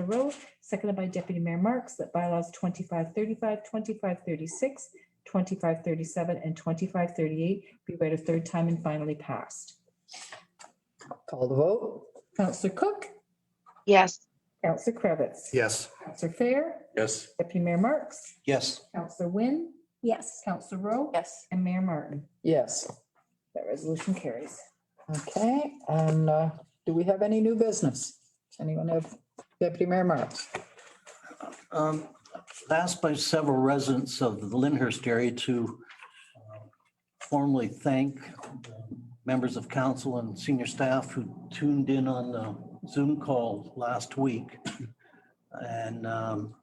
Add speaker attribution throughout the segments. Speaker 1: Rowe, seconded by Deputy Mayor Marks, that bylaws 2535, 2536, 2537, and 2538 be read a third time and finally passed.
Speaker 2: Call the vote?
Speaker 1: Counselor Cook,
Speaker 3: yes,
Speaker 1: Counselor Cravitz.
Speaker 4: Yes.
Speaker 1: Counselor Fair,
Speaker 4: Yes.
Speaker 1: Deputy Mayor Marks,
Speaker 4: Yes.
Speaker 1: Counselor Wynne,
Speaker 5: yes,
Speaker 1: Counselor Rowe.
Speaker 6: yes,
Speaker 1: And Mayor Martin.
Speaker 2: Yes.
Speaker 1: That resolution carries.
Speaker 2: Okay, and uh, do we have any new business? Does anyone have Deputy Mayor Marks?
Speaker 7: Um, Asked by several residents of the Lyndhurst area to uh, formally thank the members of council and senior staff who tuned in on the Zoom call last week. And um,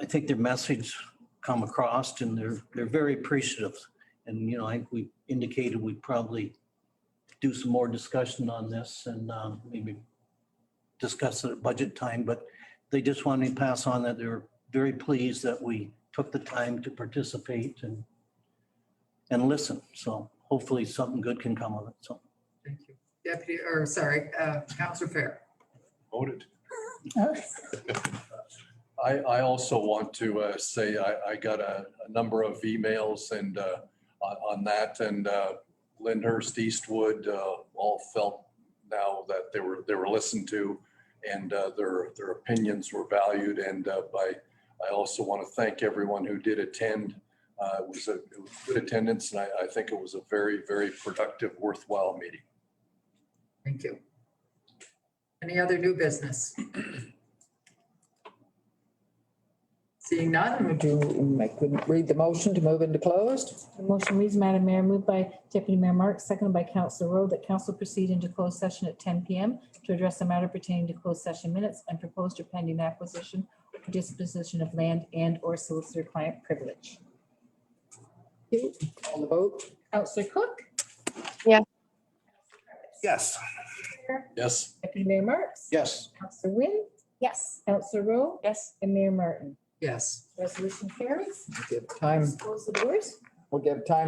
Speaker 7: I think their message come across and they're, they're very appreciative. And, you know, I, we indicated we'd probably do some more discussion on this and um, maybe discuss it at budget time, but they just wanted me to pass on that they're very pleased that we took the time to participate and and listen. So hopefully something good can come of it. So
Speaker 8: Thank you. Deputy, or sorry, uh, Counselor Fair.
Speaker 4: Voted.
Speaker 2: Oh.
Speaker 4: I, I also want to uh, say I, I got a, a number of emails and uh, on, on that and uh, Lyndhurst, Eastwood, uh, all felt now that they were, they were listened to and uh, their, their opinions were valued and uh, by, I also want to thank everyone who did attend. Uh, It was a it was good attendance and I, I think it was a very, very productive, worthwhile meeting.
Speaker 8: Thank you. Any other new business? Seeing none,
Speaker 2: Would you make, would read the motion to move into closed?
Speaker 1: The motion reads, Madam Mayor, moved by Deputy Mayor Marks, seconded by Councilor Rowe, that council proceed into closed session at ten PM to address a matter pertaining to closed session minutes and proposed or pending acquisition or disposition of land and or solicitor client privilege.
Speaker 2: Call the vote?
Speaker 1: Councilor Cook?
Speaker 3: Yes.
Speaker 4: Yes. Yes.
Speaker 1: Deputy Mayor Marks?
Speaker 4: Yes.
Speaker 1: Councilor Wynn?
Speaker 5: yes.
Speaker 1: Councilor Rowe?
Speaker 6: yes.
Speaker 1: And Mayor Martin.
Speaker 8: yes.
Speaker 1: Resolution carries.
Speaker 2: Give time,
Speaker 1: Close the doors.
Speaker 2: we'll give time